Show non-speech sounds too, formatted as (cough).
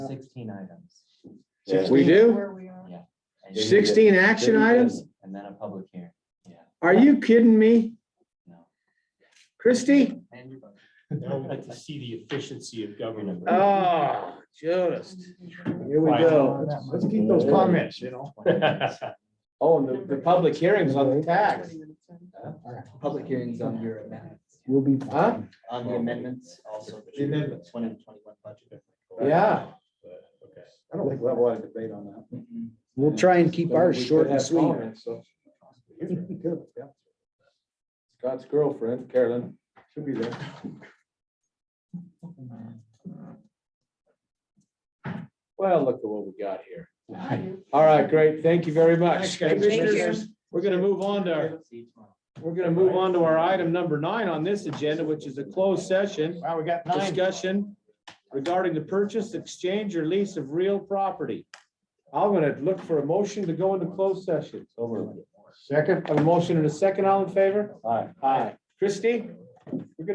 sixteen items. Yeah. We do? Where we are. and you- Sixteen action items? And then a public hearing, yeah, Are you kidding me? no. Christie? And your budget. Now we get to see the efficiency of government. (laughs) Oh, Jonas. Here we go. Let's- Let's keep those comments, (laughs) you know. Oh, and the, the public hearings on the tax. Public hearings on your amendment. We'll be. Huh? On the amendments also. The amendments. Twenty twenty-one budget. Yeah. Okay. I don't think we'll have a lot of debate on that. Mm-hmm. We'll try and keep But ours we could short and have sweet. comments, so. Good, yeah. Scott's girlfriend, Carolyn. She'll be there. Well, look at what we got here. All right, great. Thank you very much. Thanks, guys. Commissioners, We're gonna move on to our, See you tomorrow. we're gonna move on to our item number nine on this agenda, which is a closed session Wow, we got nine. discussion regarding the purchase, exchange, or lease of real property. I'm gonna look for a motion to go into closed session. Over. Second. Have a motion and a second. All in favor? All right. Aye. Christie?